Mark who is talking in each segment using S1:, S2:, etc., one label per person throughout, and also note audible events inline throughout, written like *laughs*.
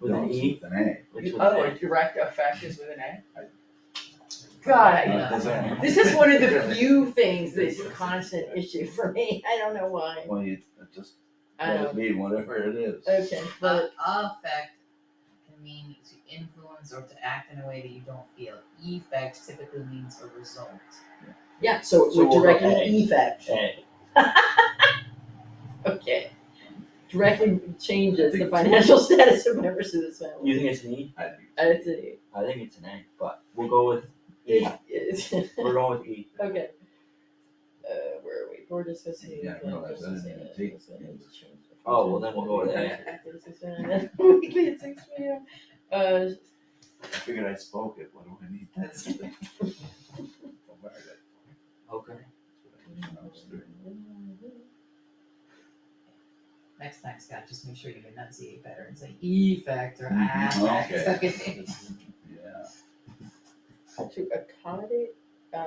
S1: with an
S2: No, it's
S1: E,
S2: With an
S1: it's with
S3: Oh,
S1: an
S3: a direct effect is with an A?
S2: A. Uh,
S3: Yeah. Uh,
S1: God,
S2: does
S3: *laughs*
S2: that-
S3: This
S1: this
S3: is one of the few things that's a constant issue for me, *laughs* I don't know why.
S2: Well, you, it just,
S3: I
S2: well,
S3: don't,
S2: it mean whatever it is.
S3: okay, but,
S4: But affect can mean to influence or to act in a way that you don't feel. Effect typically means a result.
S3: yeah, so it
S1: So
S3: would
S1: we'll go
S3: directly
S1: A.
S3: effect,
S1: A.
S3: *laughs* okay. Directly changes the
S2: I think it's-
S3: financial status of members of this family.
S1: You think it's an E?
S2: I do.
S3: Uh, It's a,
S1: I think it's an A, but we'll go with *laughs* E.
S3: it, it's, *laughs*
S1: We're going with E.
S3: okay. Uh, where are we, we're discussing.
S2: Yeah, I realize I didn't even take it.
S1: Oh, well, then we'll go with A.
S3: Weekly at six P M, uh,
S2: I figured I spoke it, what do I need this?
S3: *laughs*
S1: Okay.
S4: Next time, Scott, just make sure you enunciate better and say effect or affect.
S2: Mhm, okay.
S4: *laughs* okay?
S2: Yeah,
S3: to accommodate, uh.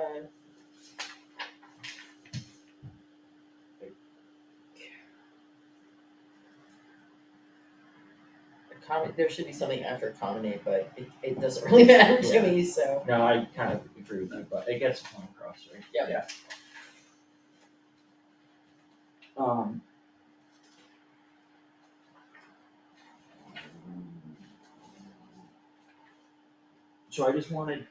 S3: Accommodate, there should be something after accommodate, but it, it doesn't really *laughs* matter to me, so.
S1: No, I kind of agree with you, but it gets the point across, right?
S3: Yep.
S2: Yeah.
S1: Um, so I just wanted,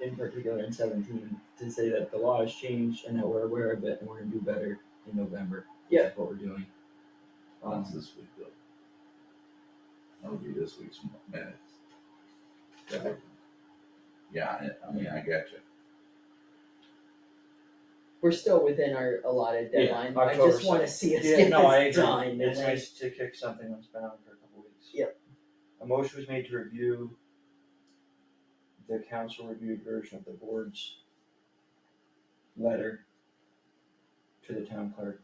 S1: in particular in seventeen, to say that the law has changed and that we're aware of it and we're gonna do better in November.
S3: Yeah.
S1: That's what we're doing.
S2: that's
S1: Um,
S2: this week though. That'll be this week's minutes.
S1: Okay.
S2: Yeah, I, I mean, I got you.
S3: We're still within our allotted
S1: Yeah,
S3: deadline, I
S1: October
S3: just wanna
S1: second.
S3: see us
S1: yeah,
S3: get
S1: no, I
S3: this
S1: agree.
S3: done, and
S1: It's
S3: I-
S1: nice to kick something that's been on for a couple weeks.
S3: Yep.
S1: A motion was made to review the council reviewed version of the board's letter to the town clerk.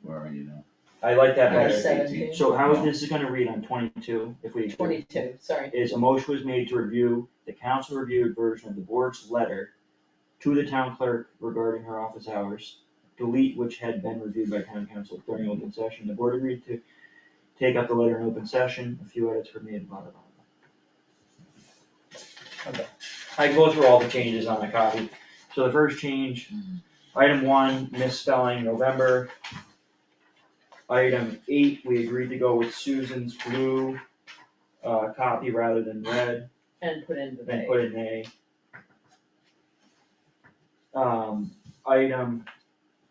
S2: Where are you now?
S1: I like that
S2: I got
S3: Number
S1: better.
S3: seven.
S2: eighteen.
S1: So how is this gonna read on twenty-two if we? agree?
S3: Twenty-two, sorry,
S1: Is a motion was made to review the council reviewed version of the board's letter to the town clerk regarding her office hours. Delete which had been reviewed by town council during open session. The board agreed to take up the letter in open session. A few edits were made, blah, blah, blah. blah. Okay. I can go through all the changes on the copy. So the first change, item one, misspelling November. Item eight, we agreed to go with Susan's blue uh, copy rather than red,
S3: and put in the
S1: then
S3: date.
S1: put in A. Um, item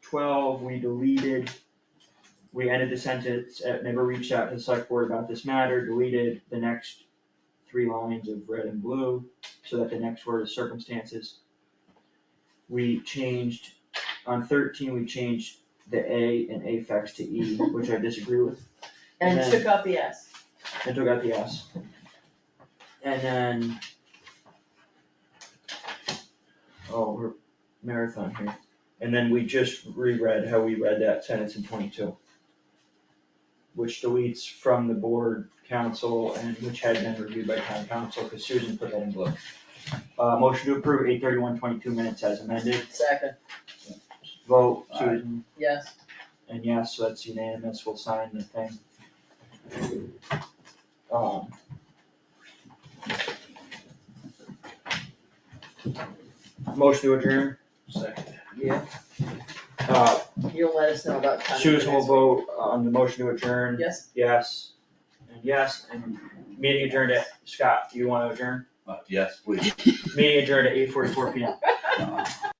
S1: twelve, we deleted, we ended the sentence, at never reached out to the select board about this matter, deleted the next three lines of red and blue, so that the next word is circumstances. We changed, on thirteen, we changed the A and affects to E, which I disagree with.
S3: And
S1: then-
S3: took out the S.
S1: and took out the S. And then. Oh, we're marathon here. And then we just reread how we read that sentence in twenty-two. Which deletes from the board council and which had been reviewed by town council, because Susan put that in blue. Uh, motion to approve eight thirty-one twenty-two minutes as amended.
S3: Second,
S1: Vote Susan.
S3: yes.
S1: And yes, so that's unanimous, we'll sign the thing. Um. Motion to adjourn,
S2: Second.
S3: Yeah.
S1: uh,
S3: You'll let us know about time. for
S1: Susan will
S3: next
S1: vote on the motion to adjourn.
S3: week. Yes,
S1: Yes, and yes, and meeting adjourned at, Scott, do you wanna adjourn?
S2: Uh, yes, please.
S3: *laughs*
S1: Meeting adjourned at eight forty-four P M.
S2: Uh,